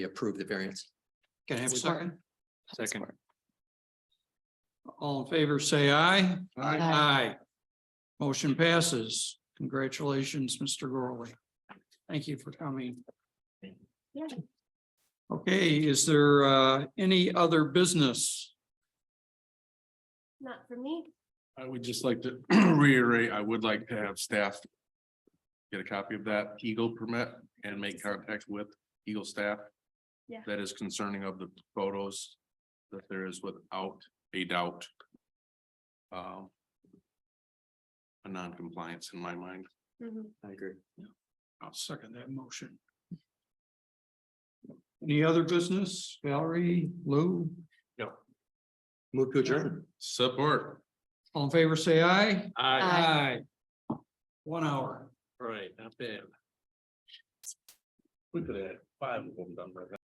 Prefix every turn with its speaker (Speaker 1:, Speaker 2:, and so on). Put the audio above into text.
Speaker 1: approve the variance.
Speaker 2: Can I have a
Speaker 3: Support.
Speaker 2: second?
Speaker 4: Second.
Speaker 2: All in favor, say aye.
Speaker 3: Aye.
Speaker 2: Aye. Motion passes. Congratulations, Mr. Gorley. Thank you for coming.
Speaker 3: Yeah.
Speaker 2: Okay, is there uh any other business?
Speaker 3: Not for me.
Speaker 4: I would just like to reiterate, I would like to have staff. Get a copy of that Eagle permit and make contact with Eagle staff.
Speaker 3: Yeah.
Speaker 4: That is concerning of the photos that there is without a doubt. Um. A non-compliance in my mind.
Speaker 3: Mhm.
Speaker 1: I agree.
Speaker 2: I'll second that motion. Any other business? Valerie, Lou,
Speaker 1: Move to adjourn.
Speaker 4: Support.
Speaker 2: all in favor, say aye.
Speaker 3: Aye.
Speaker 2: Aye. One hour.
Speaker 4: Right, not bad. We could have five of them done by